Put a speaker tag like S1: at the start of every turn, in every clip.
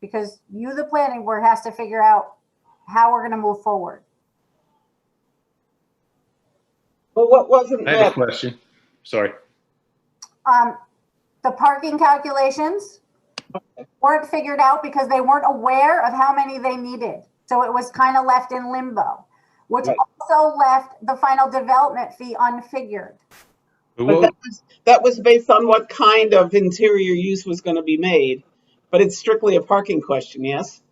S1: because you, the planning board, has to figure out how we're gonna move forward.
S2: Well, what wasn't
S3: I have a
S2: that?
S3: question. Sorry.
S1: Um, the parking calculations weren't figured out because they weren't aware of how many they needed. So it was kind of left in limbo, which
S2: Right.
S1: also left the final development fee unfigured.
S2: But
S3: But
S2: that
S3: what-
S2: was, that was based on what kind of interior use was going to be made. But it's strictly a parking question, yes?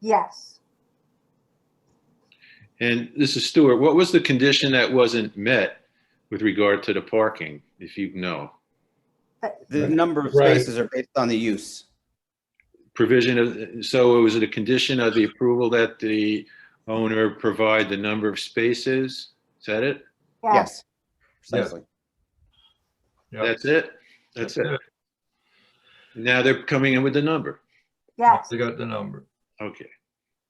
S1: Yes.
S3: And this is Stuart. What was the condition that wasn't met with regard to the parking, if you know?
S1: But
S4: The number of
S5: Right.
S4: spaces are based on the use.
S3: Provision of, so was it a condition of the approval that the owner provide the number of spaces? Is that it?
S1: yes,
S4: Yes. Precisely.
S5: Yep.
S3: That's it? That's it. Now they're coming in with the number.
S1: yes.
S5: They got the number.
S3: Okay.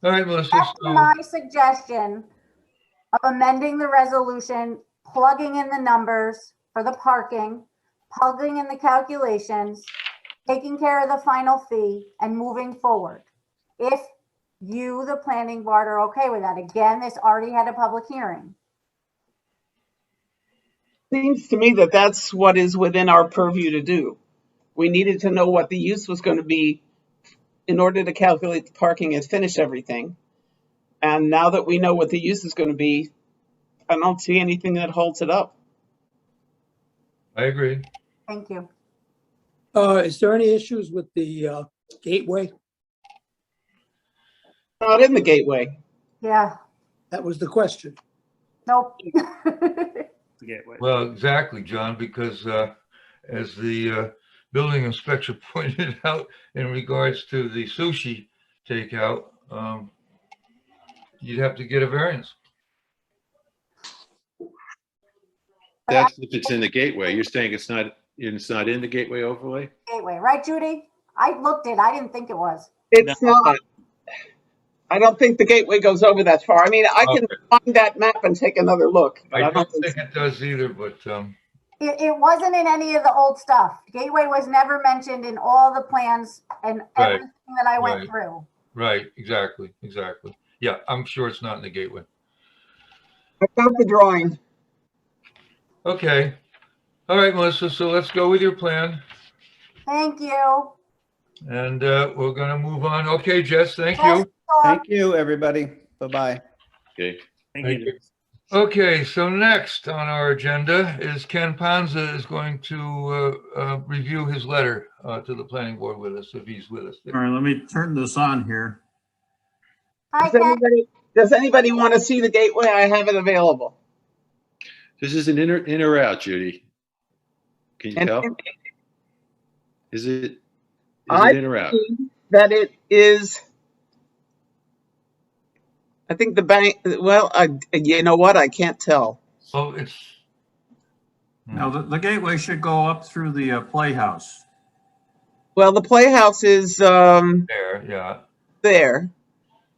S5: All right, Melissa,
S1: That's
S5: so,
S1: my suggestion of amending the resolution, plugging in the numbers for the parking, plugging in the calculations, taking care of the final fee and moving forward. If you, the planning board, are okay with that. Again, this already had a public hearing.
S2: Seems to me that that's what is within our purview to do. We needed to know what the use was going to be in order to calculate the parking and finish everything. And now that we know what the use is going to be, I don't see anything that holds it up.
S5: I agree.
S1: Thank you.
S6: Uh, is there any issues with the, uh, gateway?
S2: Not in the gateway.
S1: Yeah,
S6: That was the question.
S1: nope.
S5: Well, exactly, John, because uh, as the uh, building inspector pointed out in regards to the sushi takeout, um, you'd have to get a variance.
S3: That's if it's in the gateway. You're saying it's not, it's not in the gateway overlay?
S1: Gateway, right, Judy? I looked it. I didn't think it was.
S2: It's not. I don't think the gateway goes over that far. I mean, I can find that map and take another look. but
S5: I don't
S2: think so.
S5: think it does either, but um,
S1: It, it wasn't in any of the old stuff. Gateway was never mentioned in all the plans and
S5: Right,
S1: everything that I went
S5: right.
S1: through.
S5: right, exactly, exactly. Yeah, I'm sure it's not in the gateway.
S2: I got the drawing.
S5: Okay. All right, Melissa, so let's go with your plan
S1: Thank you.
S5: and uh, we're gonna move on. Okay, Jess, thank you.
S1: Yes, Dawn.
S4: Thank you, everybody. Bye-bye.
S3: Okay.
S5: Thank you. Okay, so next on our agenda is Ken Panza is going to uh, uh, review his letter uh, to the planning board with us, if he's with us.
S7: All right, let me turn this on here.
S1: Hi,
S2: Does
S1: Ken.
S2: anybody, does anybody want to see the gateway? I have it available.
S3: This is an in or, in or out, Judy? Can you
S2: And
S3: tell? Is it, is
S2: I-
S3: it in or out?
S2: that it is, I think the bank, well, I, you know what? I can't tell.
S5: So Oh, it's,
S7: Now, the, the gateway should go up through the uh, playhouse.
S2: Well, the playhouse is, um,
S5: there, yeah.
S2: there.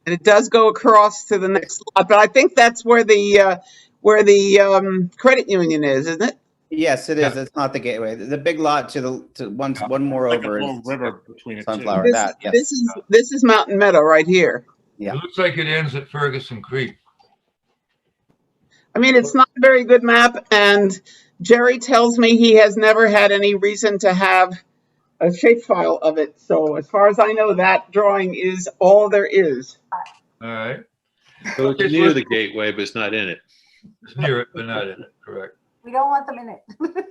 S2: And it does go across to the next lot, but I think that's where the, uh, where the, um, credit union is, isn't it?
S4: Yes, it is.
S5: Yeah.
S4: It's not the gateway. The the big lot to the, to one,
S7: Yeah.
S4: one more
S7: Like a
S4: over
S7: little
S4: is
S7: river between it.
S4: Sunflower,
S2: This-
S4: that, yes.
S2: This is, this is Mountain Meadow right here.
S4: Yeah.
S5: It looks like it ends at Ferguson Creek.
S2: I mean, it's not a very good map, and Jerry tells me he has never had any reason to have a shapefile of it. So as far as I know, that drawing is all there is.
S5: All right,
S3: So it's
S5: It's
S3: near the
S5: listed-
S3: gateway, but it's not in it.
S5: it's near it, but not in it, correct.
S1: We don't want them in it.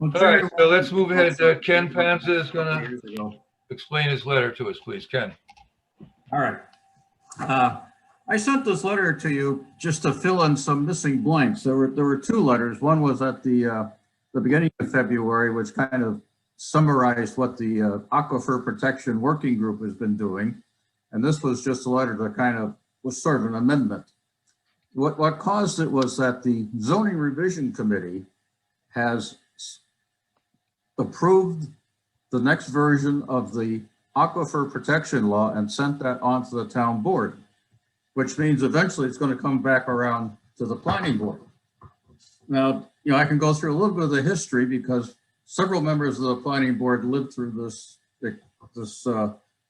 S7: All
S5: All right, so let's move ahead. Uh, Ken Panza is gonna explain his letter to us, please. Ken?
S7: All right. Uh, I sent this letter to you just to fill in some missing blanks. There were, there were two letters. One was at the, uh, the beginning of February, which kind of summarized what the uh, Aquifer Protection Working Group has been doing. And this was just a letter to kind of, was sort of an amendment. What, what caused it was that the zoning revision committee has s- approved the next version of the aquifer protection law and sent that on to the town board, which means eventually it's going to come back around to the planning board. Now, you know, I can go through a little bit of the history because several members of the planning board lived through this, this uh,